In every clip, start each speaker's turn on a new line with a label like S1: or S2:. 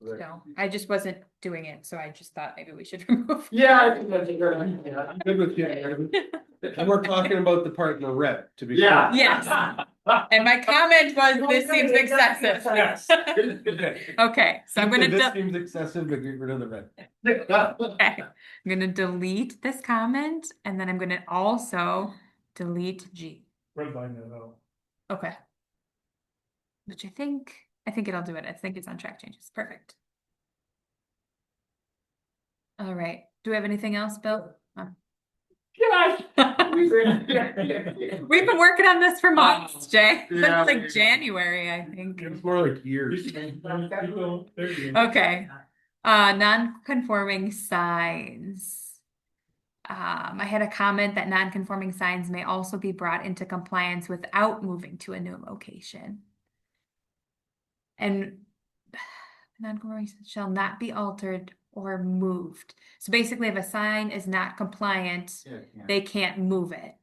S1: Right.
S2: No, I just wasn't doing it, so I just thought maybe we should remove.
S3: Yeah, I think that's a good idea.
S1: I'm good with you. Adam. And we're talking about the part in the red, to be. clear.
S3: Yeah.
S2: Yes. And my comment was, this seems excessive.
S3: Yes.
S1: Okay.
S2: Okay, so I'm gonna,
S1: This
S2: de-
S1: seems excessive, but get rid of the red.
S2: okay, I'm gonna delete this comment and then I'm gonna also delete G.
S4: Redline it out.
S2: Okay. Which I think, I think it'll do it. I think it's on track changes. Perfect. All right. Do we have anything else, Bill? Um,
S3: Yes.
S2: We've been working on this for months, Jay.
S3: Yeah.
S2: It's like January, I think.
S1: It's more like years.
S4: You can- you go, there you go.
S2: Okay. Uh, non-conforming signs. Um, I had a comment that non-conforming signs may also be brought into compliance without moving to a new location. And non-conforming signs shall not be altered or moved. So basically, if a sign is not compliant, they can't move it.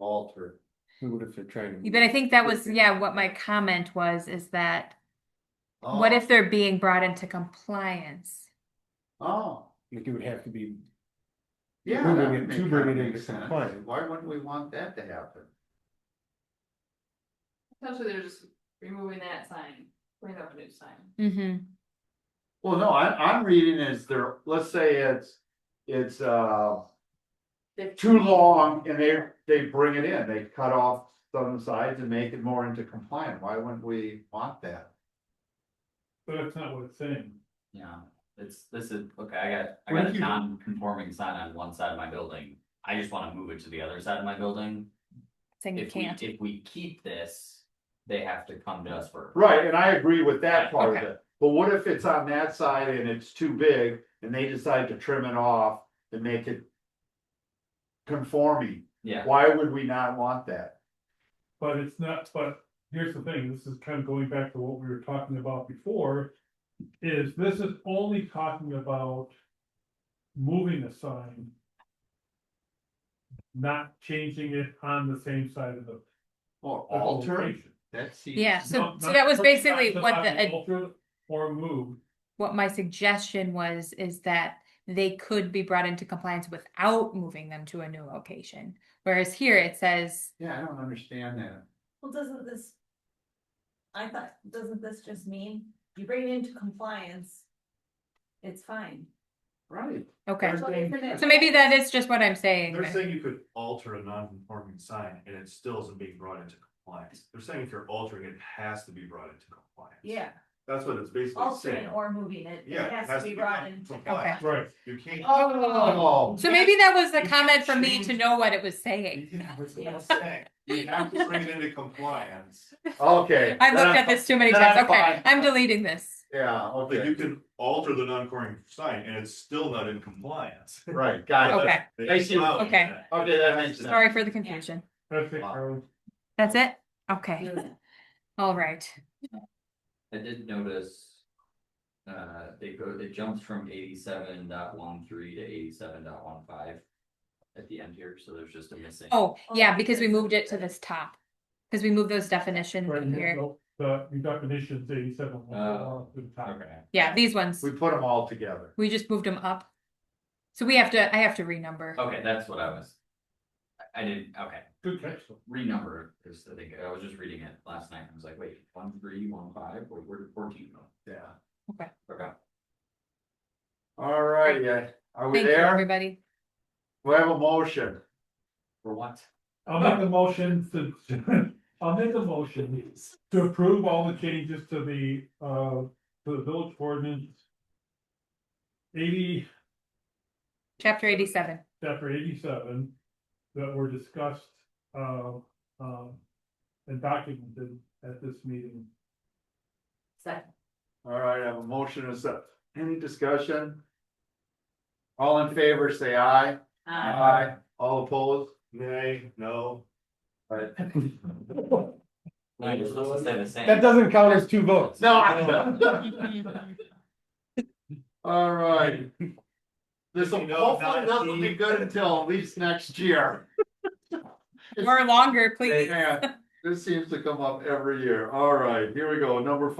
S1: Alter. Who would if they're trying to?
S2: But I think that was, yeah, what my comment was, is that
S5: Oh.
S2: what if they're being brought into compliance?
S6: Oh,
S1: Like it would have to be,
S6: yeah.
S1: Moving
S6: that
S1: it
S6: would
S1: to
S6: make-
S1: bring
S6: that
S1: it
S6: makes
S1: into
S6: sense.
S1: compliance.
S6: Why wouldn't we want that to happen?
S7: Essentially, they're just removing that sign, putting up a new sign.
S2: Mm-hmm.
S6: Well, no, I, I'm reading is there, let's say it's, it's, uh, too long and they, they bring it in, they cut off some sides and make it more into compliant. Why wouldn't we want that?
S4: But that's not what it's saying.
S5: Yeah, it's, this is, okay, I got, I
S1: What
S5: got
S1: if
S5: a
S1: you-
S5: non-conforming sign on one side of my building. I just wanna move it to the other side of my building.
S2: Saying you
S5: If we,
S2: can't.
S5: if we keep this, they have to come to us for.
S6: Right, and I agree with that part of
S2: Okay.
S6: it. But what if it's on that side and it's too big and they decide to trim it off and make it conforming?
S5: Yeah,
S6: Why would we not want that?
S4: But it's not, but here's the thing, this is kind of going back to what we were talking about before, is this is only talking about moving a sign. Not changing it on the same side of the.
S6: Or
S4: of the
S6: alter,
S4: location.
S6: that's.
S2: Yeah, so,
S4: Not-
S2: so
S4: not-
S2: that was
S4: not
S2: basically what
S4: talking
S2: the,
S4: alter Or move,
S2: what my suggestion was, is that they could be brought into compliance without moving them to a new location. Whereas here it says,
S6: Yeah, I don't understand that.
S8: Well, doesn't this? I thought, doesn't this just mean you bring it into compliance? It's fine.
S6: Right.
S2: okay,
S6: There's-
S8: So isn't it-
S2: so maybe that is just what I'm saying.
S9: They're
S2: but-
S9: saying you could alter a non-conforming sign and it still isn't being brought into compliance. They're saying if you're altering, it it has to be brought into compliance.
S8: Yeah,
S9: That's what it's basically
S8: altering
S9: saying.
S8: or moving it,
S9: Yeah,
S8: it has to be brought into.
S9: compliance.
S4: right,
S9: You can't.
S6: Oh.
S2: So maybe that was the comment for me to know what it was saying.
S9: Yeah, that's what I'm saying. You have to bring it into compliance,
S6: Okay.
S2: I've looked
S6: then
S2: at
S6: I'm-
S2: this too many
S6: then
S2: times.
S6: I'm
S2: Okay,
S6: fine.
S2: I'm deleting this.
S6: Yeah,
S9: but you
S6: okay,
S9: can alter the non-conforming sign and it's still not in compliance.
S6: right, got
S2: Okay,
S9: They
S6: I see.
S9: allowed
S2: Okay.
S9: that.
S6: it. Okay, that makes sense.
S2: sorry for the confusion.
S4: that's it, Carl.
S2: That's it? Okay, all right.
S5: I did notice. Uh, it go, it jumps from 87.13 to 87.15 At the end here, so there's just a missing.
S2: Oh,
S8: Oh,
S2: yeah,
S8: yeah,
S2: because we
S8: there's-
S2: moved it to this top. Because we moved those definitions
S4: Right,
S2: in here.
S4: no, The, your definition's eighty-seven.
S5: Oh,
S4: to the top.
S5: Okay.
S2: Yeah, these ones.
S6: We put them all together.
S2: We just moved them up. So we have to, I have to renumber.
S5: Okay, that's what I was. I- I didn't, okay,
S4: Good catch. though.
S5: renumber, because I think, I was just reading it last night, and I was like, wait, one, three, one, five, wait, where did fourteen go?
S6: Yeah.
S5: Okay.
S6: All right, yeah, are we
S2: Thank you,
S6: there?
S2: everybody.
S6: We have a motion.
S5: For what?
S4: I'll make a motion to, I'll make a motion to approve all the changes to the, uh, to the village ordinance. Eighty,
S2: Chapter eighty-seven.
S4: chapter eighty-seven, that were discussed, uh, um, and documented at this meeting.
S8: Second.
S6: All right, I have a motion and a sec- Any discussion? All in favor, say aye.
S7: Uh,
S6: All opposed?
S9: Nay, no.
S6: Right.
S5: No, you're supposed to say the same.
S1: That doesn't count as two votes.
S6: No. I- All right. This will
S9: You know,
S6: hopefully
S9: not
S6: this will be
S9: Steve.
S6: good until at least next year.
S2: Or longer, please.
S6: Yeah, this seems to come up every year. All right, here we go. Number